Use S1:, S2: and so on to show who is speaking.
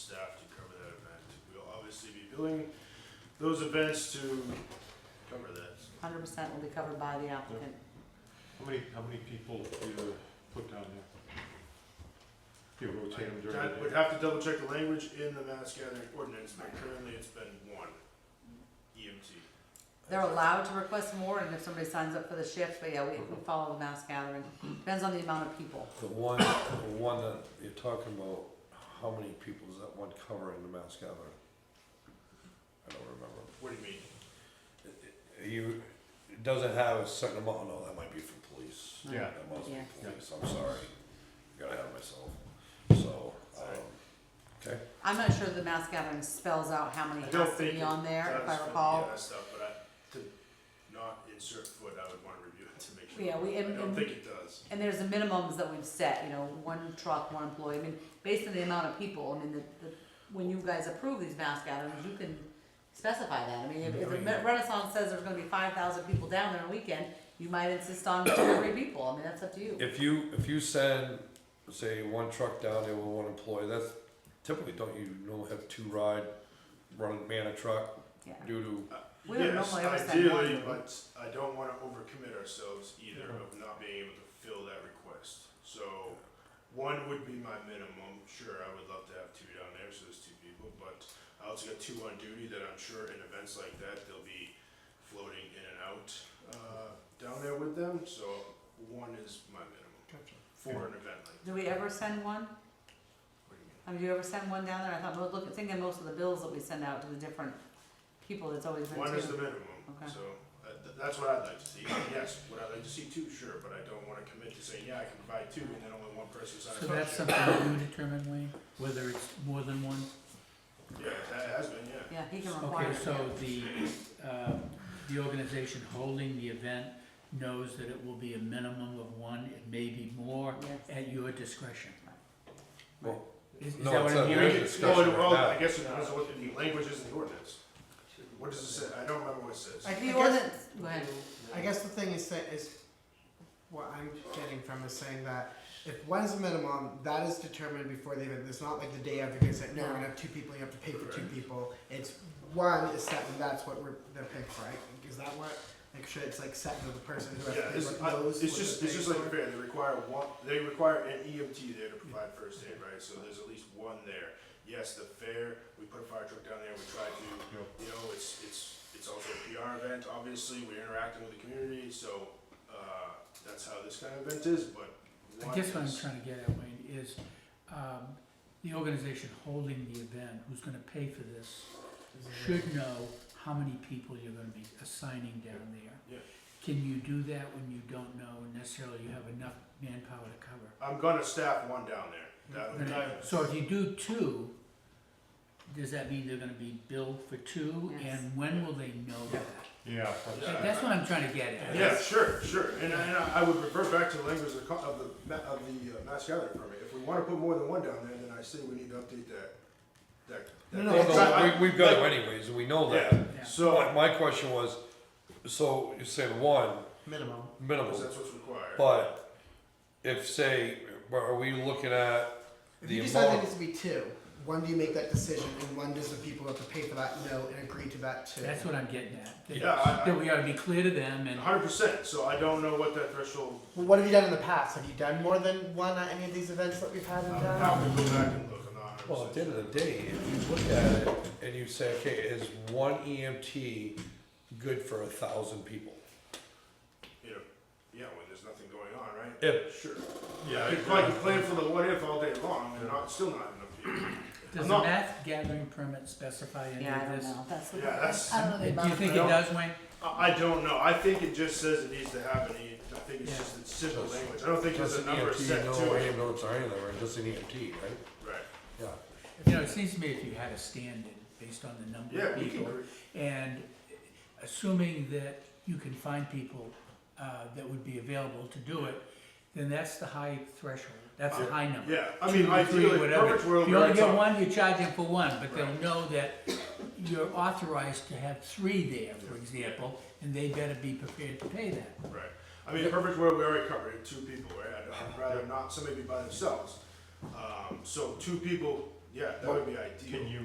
S1: billing those events to cover that.
S2: Hundred percent will be covered by the applicant.
S3: How many, how many people do you put down there? Do you rotate them during
S1: I
S3: the
S1: would
S3: day?
S1: have to double check the language in the mass gathering ordinance, but currently it's been one E EMT.
S2: They're allowed to request more, and if somebody signs up for the shift, but yeah, we, we
S1: Mm-hmm.
S2: follow the mass gathering. Depends on the amount of people.
S4: The one, the one that you're talking about, how many people is that one covering the mass gathering? I don't remember.
S1: What do you mean?
S4: You, it doesn't have a certain amount, no, that might be for police.
S3: Yeah.
S4: That must be
S2: Yeah.
S4: police, I'm sorry, got ahead of myself, so,
S1: Sorry.
S4: um, okay.
S2: I'm not sure the mass gathering spells out how many
S1: I don't
S2: has to
S1: think
S2: be
S1: it
S2: on there, if
S1: That's
S2: I
S1: for the
S2: recall.
S1: other Stuff, but I, to not insert foot, I would wanna review it to make sure.
S2: Yeah, we-
S1: I
S2: and-
S1: don't
S2: and-
S1: think it does.
S2: And there's the minimums that we've set, you know, one truck, one employee, I mean, based on the amount of people, I mean, the, the, when you guys approve these mass gatherings, you can specify that, I mean, if, if
S1: Oh,
S2: the Renaissance says there's gonna be five thousand people down there on a weekend, you might insist on two or three people, I mean, that's up to you.
S4: If you, if you send, say, one truck down there with one employee, that's typically, don't you normally have two ride, run, man a truck,
S2: Yeah,
S4: due to
S2: We don't
S1: Yes,
S2: normally ever send one.
S1: ideally, But I don't wanna overcommit ourselves either of not being able to fill that request. So, one would be my minimum, sure, I would love to have two down there, so there's two people, but I also got two on duty that I'm sure in events like that, they'll be floating in and out, uh, down there with them, so one is my minimum for an event like.
S2: do we ever send one?
S1: What do you mean?
S2: I mean, do you ever send one down there? I thought, well, look, thinking most of the bills that we send out to the different people, it's always been
S1: One is the
S2: two.
S1: minimum,
S2: Okay.
S1: so uh, th- that's what I'd like to see. Yes, would I like to see two? Sure, but I don't wanna commit to saying, yeah, I can provide two and then only one person signs
S5: So
S1: up.
S5: that's something you determine, Wayne, whether it's more than one?
S1: Yeah, that has been, yeah.
S2: Yeah, he can require.
S5: Okay,
S2: it.
S5: so the, uh, the organization holding the event knows that it will be a minimum of one, it may be more,
S2: Yes.
S5: at your discretion.
S4: Well,
S5: Is is
S4: no, it's a-
S5: that what I'm
S1: Well,
S4: there's
S5: hearing?
S4: a-
S1: it-
S4: discussion
S1: well, it-
S4: right
S1: well,
S4: now.
S1: I guess it depends on what the language is in the ordinance. What does it say? I don't remember what it says.
S2: Like the
S6: guess-
S2: ordinance, go ahead.
S6: I guess the thing is that is what I'm getting from is saying that if one's the minimum, that is determined before the event. It's not like the day of you can say, no, we're gonna have two people, you have to pay for two people. It's one is set and that's what we're they're paying for, right? Is that what like should it's like set to the person who has
S1: Yeah,
S6: to pay
S1: it's,
S6: what
S1: I-
S6: knows
S1: it's
S6: what
S1: just,
S6: they're
S1: it's just
S6: paying
S1: like
S6: for?
S1: fair, they require one, they require an EMT there to provide first aid, right? So there's at least one there. Yes, the fair, we put a fire truck down there, we try to, you know, it's, it's, it's also a PR event, obviously, we're interacting with the community, so, uh, that's how this kind of event is, but
S5: I
S1: one
S5: guess what I'm
S1: is,
S5: trying to get at, Wayne, is, um, the organization holding the event, who's gonna pay for this, should know how many people you're gonna be assigning down there.
S1: Yeah.
S5: Can you do that when you don't know necessarily you have enough manpower to cover?
S1: I'm gonna staff one down there. That would,
S5: Then- So if you do two, does that mean they're gonna be billed for two,
S2: Yes.
S5: and when will they know that?
S3: Yeah.
S1: Yeah.
S5: That- That's what I'm trying to get at.
S1: Yeah, sure, sure, and, and I I would refer back to the language of the, co- of the, ma- of the uh, mass gathering permit, if we wanna put more than one down there, then I say we need to update that, that. that-
S6: No,
S4: Well,
S6: no,
S4: no, we, we've got them anyways, and we know that.
S1: Yeah,
S5: Yeah.
S1: so,
S4: My- My question was, so you say one
S6: minimum.
S4: minimum,
S1: because that's what's required.
S4: but if say, are we looking at
S6: If
S4: the
S6: you decide there
S4: amount?
S6: needs to be two, when do you make that decision and when does the people who have to pay for that know and agree to that too?
S5: That's what I'm getting at. that-
S1: Yeah, I- I-
S5: That we ought to be clear to them, and
S1: Hundred percent, so I don't know what that threshold,
S6: Well, what have you done in the past? Have you done more than one at any of these events that we've had in
S1: I'm
S6: town?
S1: gonna um, go back and look, I'm not hundred percent.
S4: Well, at the end of the day, if you look at it and you say, okay, is one EMT good for a thousand people?
S1: you know, yeah, when there's nothing going on, right?
S4: If-
S1: Sure.
S3: Yeah,
S1: I
S3: I
S1: could, I could plan for the what if all day long, and not, still not enough people.
S5: does the
S1: not-
S5: math gathering permit specify any
S2: Yeah, I
S5: of
S2: don't
S5: this?
S2: know, that's what.
S1: Yeah, that's-
S2: I don't know the
S5: Do
S2: amount
S5: you
S2: of
S5: think it
S2: people.
S5: does, Wayne?
S1: I, I don't know, I think it just says it needs to have an E, I think it's
S5: Yeah.
S1: just it's simple
S4: Does-
S1: language, I don't think there's
S4: Just
S1: a
S4: an
S1: number set
S4: EMT,
S1: to
S4: no
S1: it.
S4: ambulance or anything, or just an EMT, E right?
S1: Right.
S4: Yeah.
S5: You know, it seems to me if you had a stand-in based on the number
S1: Yeah,
S5: of
S1: we can.
S5: people, and assuming that you can find people uh, that would be available to do it, then that's the high threshold, that's the high number.
S1: Yeah, I
S5: Two,
S1: mean,
S5: three,
S1: ideally,
S5: whatever.
S1: perfect world,
S5: If you only
S1: we're
S5: get
S1: top.
S5: one, you charge them for one, but they'll
S1: Right.
S5: know that you're authorized to have three there, for example, and they better be prepared to pay that.
S1: Right. I mean, perfect world, we already covered it, two people, right? I'd- I'd rather not somebody be by themselves. Um, so two people, yeah, that would be ideal.
S3: Can you